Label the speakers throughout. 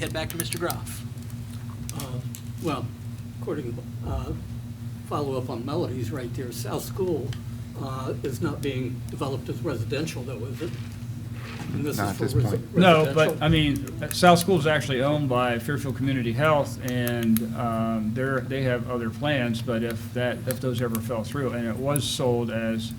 Speaker 1: Head back to Mr. Groff.
Speaker 2: Uh, Well, according, uh, follow up on Melody's right there, South School uh, is not being developed as residential though, is it? And this
Speaker 3: Not
Speaker 2: is
Speaker 3: at
Speaker 2: for
Speaker 3: this
Speaker 2: resi-
Speaker 3: point.
Speaker 4: No, but,
Speaker 2: residential.
Speaker 4: I mean, South School is actually owned by Fairfield Community Health, and um, they're, they have other plans, but if that, if those ever fell through, and it was sold as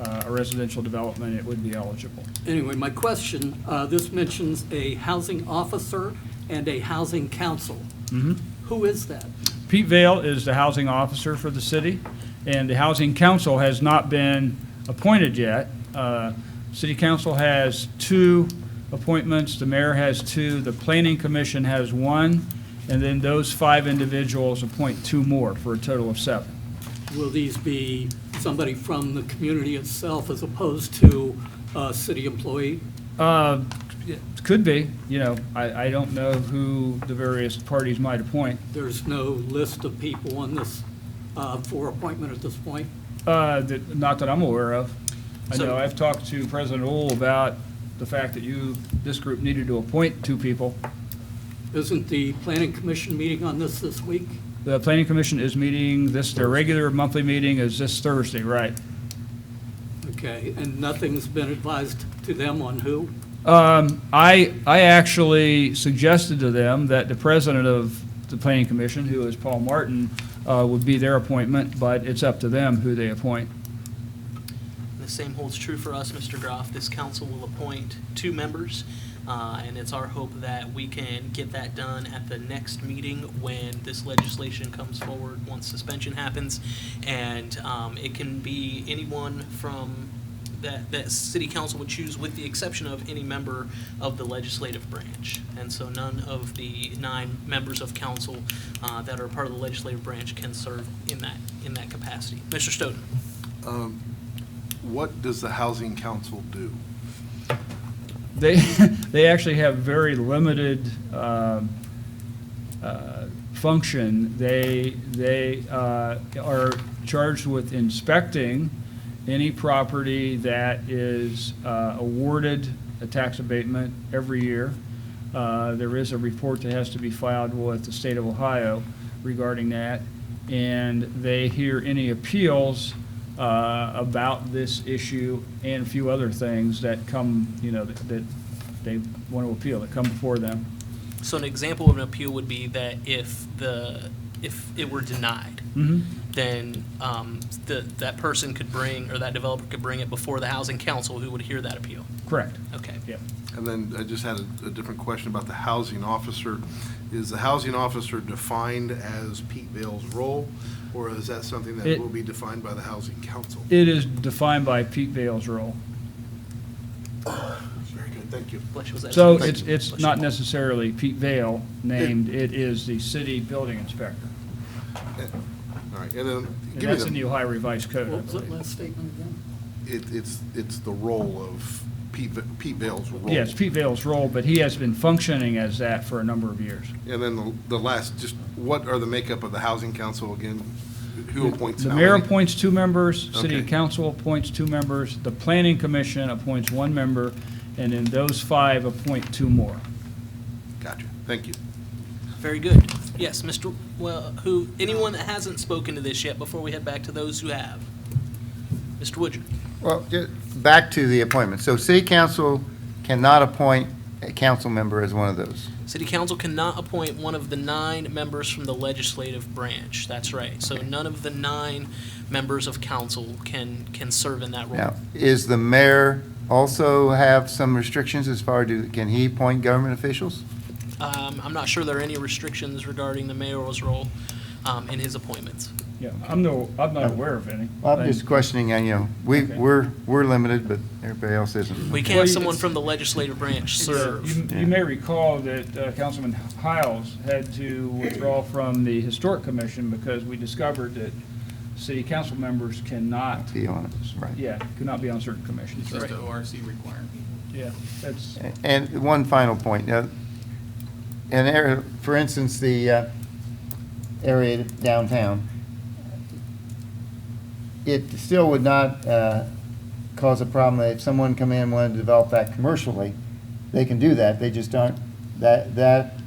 Speaker 4: uh, a residential development, it would be eligible.
Speaker 2: Anyway, my question, uh, this mentions a housing officer and a housing council.
Speaker 4: Mm-hmm.
Speaker 2: Who is that?
Speaker 4: Pete Vale is the housing officer for the city, and the housing council has not been appointed yet. Uh, City council has two appointments, the mayor has two, the planning commission has one, and then those five individuals appoint two more, for a total of seven.
Speaker 2: Will these be somebody from the community itself as opposed to a city employee?
Speaker 4: Uh, it Could be, you know, I, I don't know who the various parties might appoint.
Speaker 2: There's no list of people on this uh, for appointment at this point?
Speaker 4: Uh, that, not that I'm aware of. I
Speaker 2: So-
Speaker 4: know, I've talked to President Ohl about the fact that you, this group needed to appoint two people.
Speaker 2: Isn't the planning commission meeting on this this week?
Speaker 4: The planning commission is meeting, this, their regular monthly meeting is this Thursday, right?
Speaker 2: Okay, and nothing's been advised to them on who?
Speaker 4: Um, I, I actually suggested to them that the president of the planning commission, who is Paul Martin, uh, would be their appointment, but it's up to them who they appoint.
Speaker 1: The same holds true for us, Mr. Groff. This council will appoint two members, uh, and it's our hope that we can get that done at the next meeting when this legislation comes forward, once suspension happens. And um, it can be anyone from, that, that city council would choose, with the exception of any member of the legislative branch. And so none of the nine members of council uh, that are part of the legislative branch can serve in that, in that capacity. Mr. Stoughton?
Speaker 5: Um, What does the housing council do?
Speaker 4: They, they actually have very limited um, uh, function. They, they uh, are charged with inspecting any property that is uh, awarded a tax abatement every year. Uh, There is a report that has to be filed with the state of Ohio regarding that, and they hear any appeals uh, about this issue and a few other things that come, you know, that that they want to appeal, that come before them.
Speaker 1: So an example of an appeal would be that if the, if it were denied,
Speaker 4: Mm-hmm.
Speaker 1: then um, the, that person could bring, or that developer could bring it before the housing council who would hear that appeal.
Speaker 4: Correct.
Speaker 1: Okay.
Speaker 4: Yep.
Speaker 5: And then I just had a, a different question about the housing officer. Is the housing officer defined as Pete Vale's role, or is that something that
Speaker 4: It-
Speaker 5: will be defined by the housing council?
Speaker 4: It is defined by Pete Vale's role.
Speaker 5: Very good, thank you.
Speaker 1: Bless you, was that-
Speaker 4: So
Speaker 5: Thank
Speaker 4: it's,
Speaker 5: you.
Speaker 4: it's not necessarily Pete Vale named, it is the city building inspector.
Speaker 5: Eh, All right, and then,
Speaker 4: And
Speaker 5: give
Speaker 4: that's in
Speaker 5: me the,
Speaker 4: the Ohio Revised Code, I
Speaker 2: What was that
Speaker 4: believe.
Speaker 2: last statement again?
Speaker 5: it, it's, it's the role of Pete, Va- Pete Vale's role.
Speaker 4: Yeah, it's Pete Vale's role, but he has been functioning as that for a number of years.
Speaker 5: And then the, the last, just what are the makeup of the housing council again? Who appoints
Speaker 4: The
Speaker 5: how
Speaker 4: mayor
Speaker 5: many?
Speaker 4: appoints two members, city
Speaker 5: Okay.
Speaker 4: council appoints two members, the planning commission appoints one member, and then those five appoint two more.
Speaker 5: Gotcha, thank you.
Speaker 1: Very good. Yes, Mr., well, who, anyone that hasn't spoken to this yet, before we head back to those who have. Mr. Woodger?
Speaker 3: Well, ju- back to the appointment. So city council cannot appoint a council member as one of those.
Speaker 1: City council cannot appoint one of the nine members from the legislative branch. That's right. So none of the nine members of council can, can serve in that role.
Speaker 3: Now, is the mayor also have some restrictions as far as, can he appoint government officials?
Speaker 1: Um, I'm not sure there are any restrictions regarding the mayor's role um, in his appointments.
Speaker 4: Yeah, I'm no, I'm not aware of any.
Speaker 3: Well, I'm just questioning, uh, you know, we,
Speaker 4: Okay.
Speaker 3: we're, we're limited, but everybody else isn't.
Speaker 1: We
Speaker 4: Well,
Speaker 1: can't have
Speaker 4: you-
Speaker 1: someone
Speaker 4: it's-
Speaker 1: from the legislative branch serve.
Speaker 4: uh, You you may recall that uh, Councilman Hiles had to withdraw from the Historic Commission because we discovered that city council members cannot,
Speaker 3: Be on it, right.
Speaker 4: yeah, could not be on certain commissions.
Speaker 6: It's just
Speaker 1: Right.
Speaker 6: an ORC requirement.
Speaker 4: Yeah, that's,
Speaker 3: And one final point, uh, an area, for instance, the uh, area downtown, it still would not uh, cause a problem that if someone come in and wanted to develop that commercially, they can do that, they just aren't, that, that